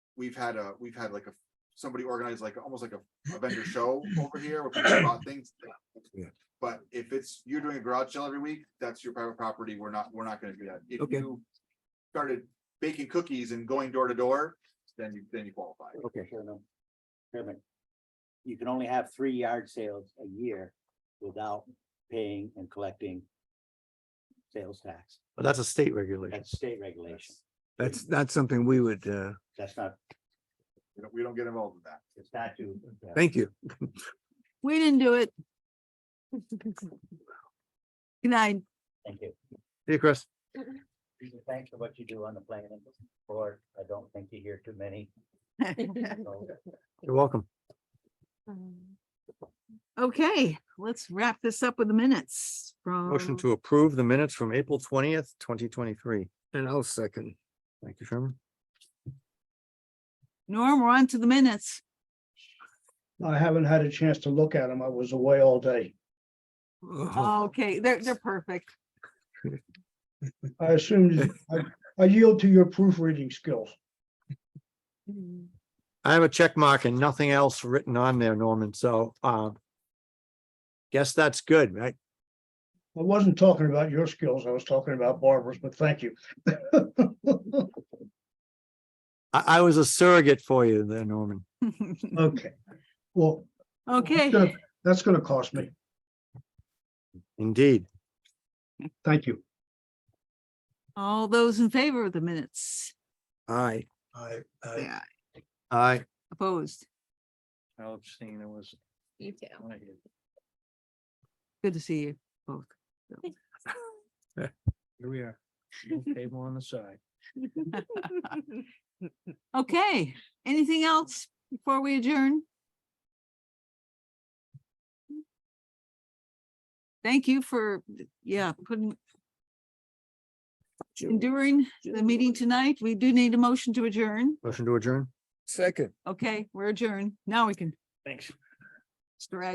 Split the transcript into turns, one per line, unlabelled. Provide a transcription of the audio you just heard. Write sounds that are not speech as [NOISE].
we've had a, we've had like a, somebody organized like, almost like a a vendor show over here. where people brought things.
Yeah.
But if it's, you're doing a garage sale every week, that's your private property. We're not, we're not gonna do that. If
Okay.
you started baking cookies and going door to door, then you, then you qualify.
Okay.
Chairman, Chairman, you can only have three yard sales a year without paying and collecting sales tax.
But that's a state regulation.
That's state regulation.
That's not something we would, uh,
That's not,
We don't, we don't get involved in that.
it's not due.
thank you.
We didn't do it. [LAUGHS] Good night.
Thank you.
Hey, Chris.
Thanks for what you do on the planning board. I don't think you hear too many. so-
You're welcome.
Okay, let's wrap this up with the minutes from.
Motion to approve the minutes from April twentieth, twenty twenty-three.
And I'll second.
Thank you, Sherman.
Norm, we're on to the minutes.
I haven't had a chance to look at them. I was away all day.
Oh,
Okay, they're, they're perfect. [LAUGHS]
I
[LAUGHS]
assumed, I- I yield to your proofreading skills.
I have a check mark and nothing else written on there, Norman, so, uh, guess that's good, right?
I wasn't talking about your skills. I was talking about Barbara's, but thank you. [LAUGHS]
I, I was a surrogate for you there, Norman.
Okay. Well. that's
Okay,
gonna- That's gonna cost me.
Indeed.
Thank you.
all those in favor of the minutes,
Aye.
I,
say aye.
Aye.
opposed,
I'll abstain. It was.
You too.
good to see you both.
Here we are. Table on the side.
Okay, anything else before we adjourn? Thank you for, yeah, putting. Enduring the meeting tonight. We do need a motion to adjourn.
Motion to adjourn?
Second.
Okay, we're adjourned. Now we can. Thanks. Mr. Ag-